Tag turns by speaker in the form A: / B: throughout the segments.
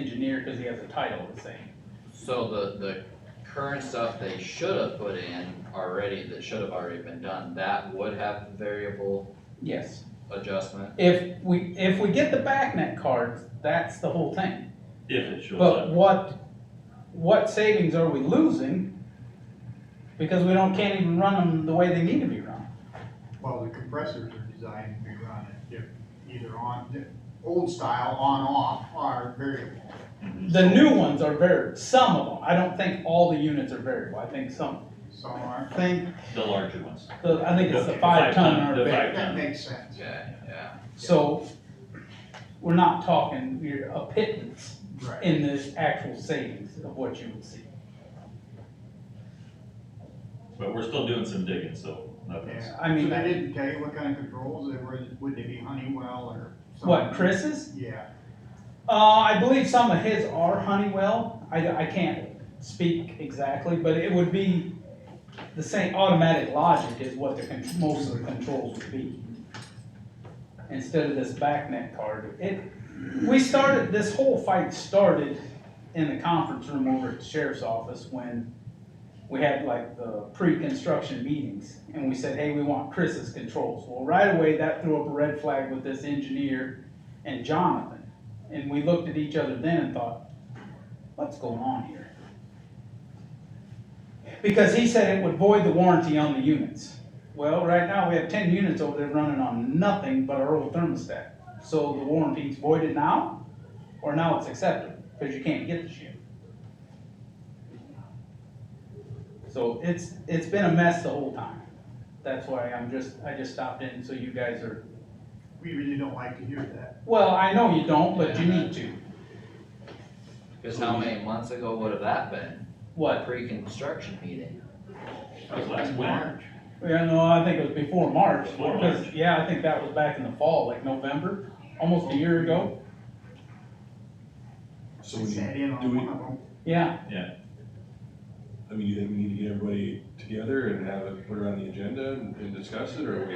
A: engineer, cause he has a title the same.
B: So the, the current stuff they should have put in already, that should have already been done, that would have variable
A: Yes.
B: adjustment?
A: If we, if we get the backnet cards, that's the whole thing.
C: If it shows
A: But
C: up,
A: what, what savings are we losing? Because we don't, can't even run them the way they need to be run.
D: Well, the compressors are designed to be run at diff- either on, di- old style, on, off, are variable.
C: Mm-hmm.
A: The new ones are very, some of them, I don't think all the units are variable, I think some,
D: Some aren't.
A: I think,
C: the larger ones.
A: the- I think it's the
C: Okay,
A: five ton
C: five-ton,
A: are
C: the
A: variable.
C: five-
D: That makes sense.
B: Yeah, yeah.
A: So, we're not talking, we're a pittance
D: Right.
A: in this actual savings of what you would see.
C: But we're still doing some digging, so nothing's,
D: Yeah.
A: I mean-
D: So they didn't tell you what kind of controls they were, would they be Honeywell or? some-
A: What, Chris's?
D: Yeah,
A: Uh, I believe some of his are Honeywell, I, I can't speak exactly, but it would be the same automatic logic is what the, con- most of the controls would be. Instead of this backnet card, it, we started, this whole fight started in the conference room over at the sheriff's office when we had like the pre-construction meetings, and we said, hey, we want Chris's controls. Well, right away, that threw up a red flag with this engineer and Jonathan. And we looked at each other then and thought, what's going on here? Because he said it would void the warranty on the units. Well, right now, we have ten units over there running on nothing but our old thermostat. So the warranty's voided now, or now it's accepted, because you can't get the shit. So it's, it's been a mess the whole time. That's why I'm just, I just stopped in, so you guys are,
D: we really don't like to hear that.
A: well, I know you don't, but you need to.
B: Cause how many months ago would have that been?
A: What?
B: Pre-construction meeting?
C: that was last winter.
A: Yeah, no, I think it was before March,
C: Before
A: because,
C: March.
A: yeah, I think that was back in the fall, like November, almost a year ago,
E: So
D: I
E: we need,
D: sat in
E: do
D: on
E: we-
D: one of them.
A: yeah.
E: I mean, you think we need to get everybody together and have it put around the agenda and and discuss it, or we?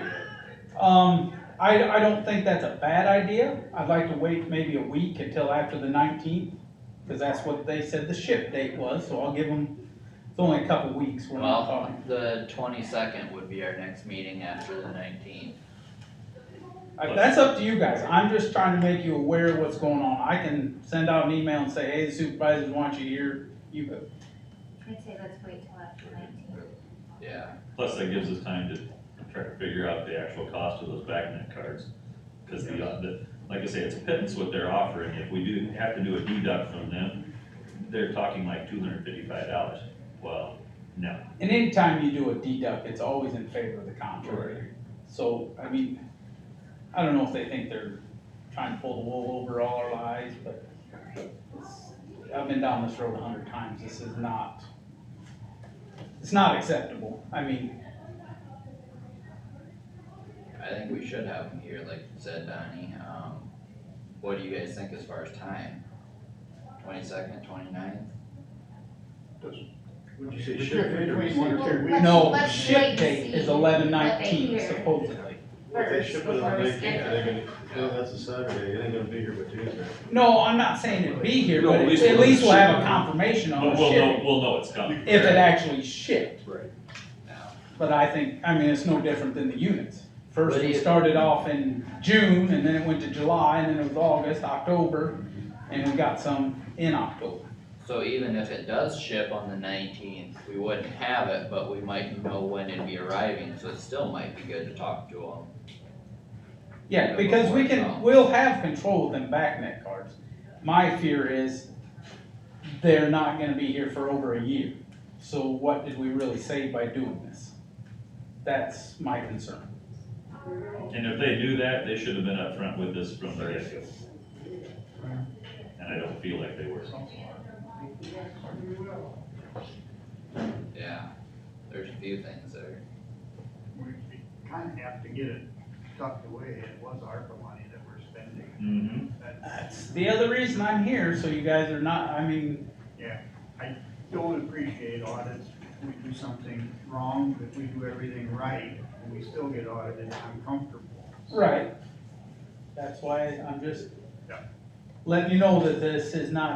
A: Um, I, I don't think that's a bad idea, I'd like to wait maybe a week until after the nineteenth, because that's what they said the ship date was, so I'll give them, it's only a couple weeks, we're not
B: Well,
A: talking.
B: the twenty-second would be our next meeting after the nineteenth.
A: I- That's up to you guys, I'm just trying to make you aware of what's going on, I can send out an email and say, hey, the supervisors want you here, you go.
F: I'd say let's wait till after nineteen.
B: Yeah,
C: Plus that gives us time to try to figure out the actual cost of those backnet cards. Cause the, uh, the, like I say, it's a pittance what they're offering. If we do have to do a deduct from them, they're talking like two hundred fifty-five dollars. Well, no,
A: And anytime you do a deduct, it's always in favor of the contractor. So, I mean, I don't know if they think they're trying to pull the wool over all our eyes, but it's- I've been down this road a hundred times, this is not, it's not acceptable. I mean,
B: I think we should have them here, like you said, Donnie, um, what do you guys think as far as time? Twenty-second, twenty-ninth?
D: Would
C: you say
D: The
C: ship
D: difference
C: date or
D: Between one or two
F: receipt?
D: weeks.
A: no,
F: let's
A: ship
F: wait to
A: date is
F: see
A: eleven
F: what they
A: nineteen
F: hear.
A: supposedly.
G: If they ship it on the
F: First, before we
G: nineteenth,
F: schedule.
G: they're gonna, no, that's a Saturday, it ain't gonna be here by Tuesday.
A: No, I'm not saying it'd be here,
E: No,
A: but
E: at
A: at
E: least we'll
A: least we'll have a
E: ship.
A: confirmation on
C: but
A: the
C: we'll know,
A: shipping,
C: we'll know it's coming.
A: if it actually shipped.
G: Right.
A: But I think, I mean, it's no different than the units. First,
B: But
A: we
B: it-
A: started off in June, and then it went to July, and then it was August, October, and we got some in October.
B: So even if it does ship on the nineteenth, we wouldn't have it, but we might know when it'd be arriving, so it still might be good to talk to them.
A: Yeah,
B: Yeah,
A: because we
B: before it
A: can,
B: comes.
A: we'll have control of them backnet cards. My fear is they're not gonna be here for over a year. So what did we really save by doing this? That's my concern.
C: And if they do that, they should have been upfront with us from the get-go. And I don't feel like they were.
B: Yeah, there's a few things that are,
D: We kind of have to get it tucked away, it was ARPA money that we're spending.
C: Mm-hmm.
D: That-
A: That's the other reason I'm here, so you guys are not, I mean,
D: Don't appreciate audits, we do something wrong, but we do everything right, and we still get audited, I'm comfortable.
A: right. That's why I'm just letting you know that this is not